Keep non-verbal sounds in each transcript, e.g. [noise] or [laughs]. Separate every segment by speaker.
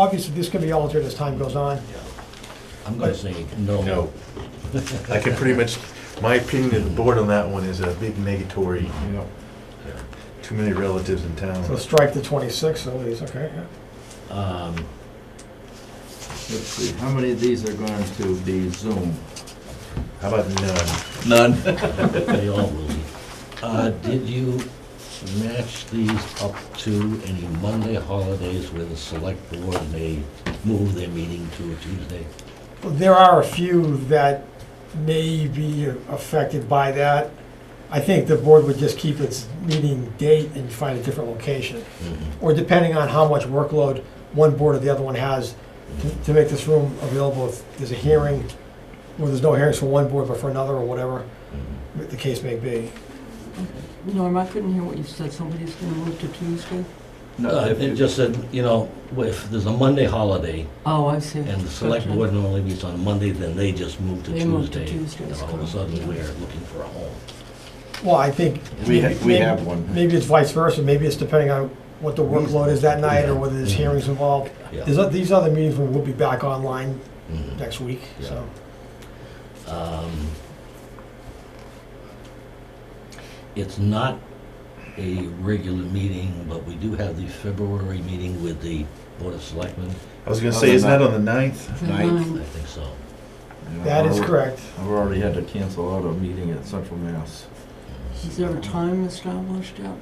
Speaker 1: Obviously, this can be altered as time goes on.
Speaker 2: I'm gonna say no.
Speaker 3: No. I can pretty much, my opinion of the board on that one is a big negatory, you know, too many relatives in
Speaker 1: So
Speaker 3: town.
Speaker 1: strike the 26th at least, okay? yeah.
Speaker 2: Um,
Speaker 4: Let's see, how many of these are going to be Zoom?
Speaker 3: How about none?
Speaker 4: None.
Speaker 2: [laughs] They all will be. Uh, Did you match these up to any Monday holidays where the select board may move their meeting to a Tuesday?
Speaker 1: There are a few that may be affected by that. I think the board would just keep its meeting date and find a different location. Or depending on how much workload one board or the other one has, to- to make this room available if there's a hearing, or there's no hearings for one board but for another, or whatever the case may be.
Speaker 5: Norm, I couldn't hear what you said. Somebody's gonna move to Tuesday?
Speaker 4: No,
Speaker 2: Uh,
Speaker 4: if
Speaker 2: It
Speaker 4: you-
Speaker 2: just said, you know, if there's a Monday holiday
Speaker 5: Oh, I see.
Speaker 2: and the select
Speaker 5: Gotcha.
Speaker 2: board normally meets on Monday, then they just move to
Speaker 5: They move to
Speaker 2: Tuesday.
Speaker 5: Tuesdays,
Speaker 2: And all of a
Speaker 5: correct.
Speaker 2: sudden, we're looking for a home.
Speaker 1: Well, I think.
Speaker 4: We ha- we
Speaker 1: maybe-
Speaker 4: have one.
Speaker 1: Maybe it's vice versa, maybe it's depending on what the workload is that night, or whether there's hearings involved.
Speaker 2: Yeah.
Speaker 1: There's, o- these other meetings will be back online
Speaker 2: Mhm.
Speaker 1: next week, so.
Speaker 2: Um, It's not a regular meeting, but we do have the February meeting with the Board of Selectmen.
Speaker 3: I was gonna say, isn't that on the ninth?
Speaker 5: The
Speaker 4: Ninth.
Speaker 2: I
Speaker 5: ninth.
Speaker 2: think so.
Speaker 4: you know,
Speaker 1: That is
Speaker 4: I've-
Speaker 1: correct.
Speaker 4: I've already had to cancel out a meeting at Central Mass.
Speaker 5: Is there a time established yet?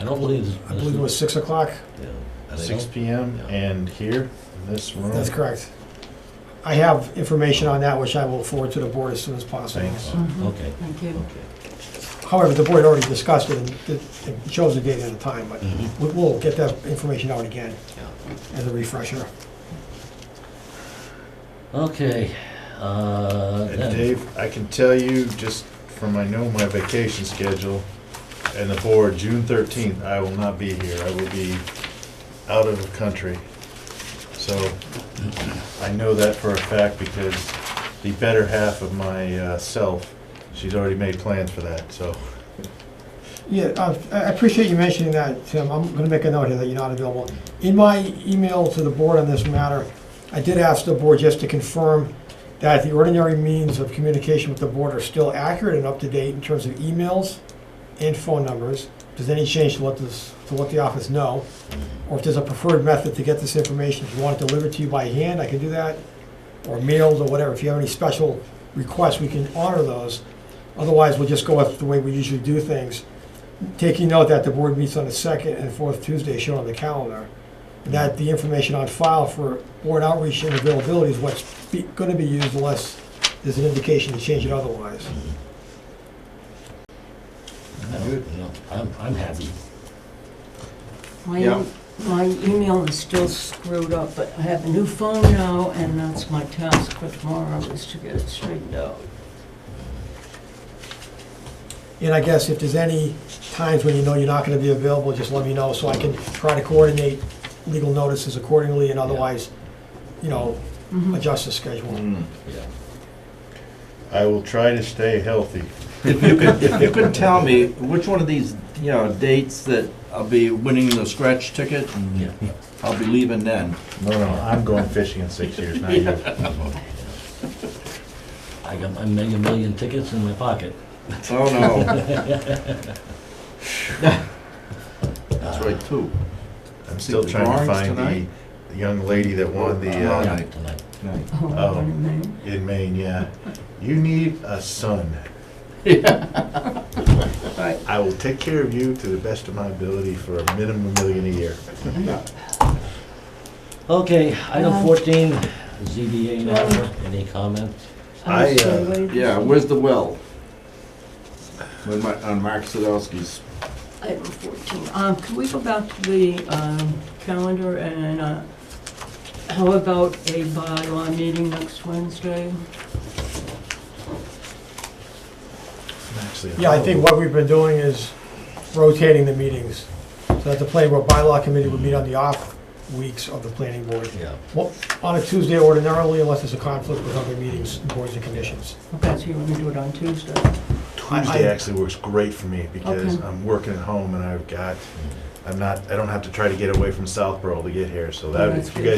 Speaker 2: I don't believe.
Speaker 1: I believe it was six o'clock,
Speaker 2: Yeah, and I
Speaker 3: Six
Speaker 2: don't-
Speaker 3: P M
Speaker 2: Yeah.
Speaker 3: and here, in this
Speaker 2: Oh.
Speaker 3: room.
Speaker 1: that's correct. I have information on that, which I will forward to the board as soon as possible.
Speaker 3: Thanks.
Speaker 5: Mhm.
Speaker 2: Okay,
Speaker 5: Thank you.
Speaker 2: Uh-huh. okay.
Speaker 1: However, the board already discussed it, and it it shows the date and the time, but
Speaker 2: Mhm.
Speaker 1: we- we'll get that information out again
Speaker 2: Yeah.
Speaker 1: as a refresher.
Speaker 2: Okay, uh,
Speaker 3: And
Speaker 2: then-
Speaker 3: Dave, I can tell you, just from I know my vacation schedule and the board, June thirteenth, I will not be here. I will be out of the country. So I know that for a fact because the better half of my uh, self, she's already made plans for that, so.
Speaker 1: Yeah, uh, I appreciate you mentioning that, Tim. I'm going to make a note here that you're not available. In my email to the board on this matter, I did ask the board just to confirm that the ordinary means of communication with the board are still accurate and up to date in terms of emails and phone numbers. If there's any change, to let this, to let the office know. Or if there's a preferred method to get this information, if you want it delivered to you by hand, I can do that. Or mailed or whatever. If you have any special requests, we can honor those. Otherwise, we'll just go with the way we usually do things taking note that the board meets on the second and fourth Tuesday shown on the calendar, and that the information on file for board outreach and availability is what's be, gonna be used unless there's an indication to change it otherwise.
Speaker 2: I don't- you know, I'm, I'm happy.
Speaker 5: My,
Speaker 4: Yeah.
Speaker 5: em- my email is still screwed up, but I have a new phone now, and that's my task for tomorrow, is to get it straightened out.
Speaker 1: And I guess if there's any times when you know you're not gonna be available, just let me know, so I can try to coordinate legal notices accordingly, and otherwise, you know,
Speaker 5: Mhm.
Speaker 1: adjust the schedule.
Speaker 2: Yeah.
Speaker 3: I will try to stay healthy.
Speaker 4: If you could, if you could tell me which one of these, you know, dates that I'll be winning the scratch ticket, and
Speaker 2: Yeah.
Speaker 4: I'll be leaving then.
Speaker 3: No, no, I'm going fishing in six years, not you.
Speaker 2: I got my mega million tickets in my pocket.
Speaker 4: Oh, no. That's right, two.
Speaker 3: I'm still trying to find the young lady that won the,
Speaker 4: All
Speaker 2: Yeah,
Speaker 3: uh,
Speaker 4: right.
Speaker 2: Tonight.
Speaker 4: Right.
Speaker 5: Oh,
Speaker 3: Oh.
Speaker 5: what a
Speaker 2: Um,
Speaker 5: name.
Speaker 3: in Maine, yeah. You need a son.
Speaker 5: Right.
Speaker 3: I will take care of you to the best of my ability for a minimum million a year.
Speaker 2: Okay, item
Speaker 5: Um,
Speaker 2: fourteen, ZBA matter, any comment?
Speaker 3: I,
Speaker 5: I'm still
Speaker 3: uh,
Speaker 5: waiting.
Speaker 4: Yeah, where's the well? On Ma- on Mark Sadowski's.
Speaker 5: Item 14. Um, Can we go back to the um, calendar and uh, how about a bylaw meeting next Wednesday?
Speaker 3: Actually,
Speaker 1: Yeah, I think what we've been doing is rotating the meetings, so that the planning board bylaw committee would meet on the off weeks of the planning board.
Speaker 2: Yeah.
Speaker 1: Well, on a Tuesday ordinarily, unless there's a conflict with other meetings, boards and commissions.
Speaker 5: Okay, so you want to do it on Tuesday?
Speaker 3: Tuesday actually works great for me because
Speaker 5: Okay.
Speaker 3: I'm working at home and I've got I'm not, I don't have to try to get away from Southborough to get here, so that,
Speaker 5: That's
Speaker 3: if you
Speaker 5: good.
Speaker 3: guys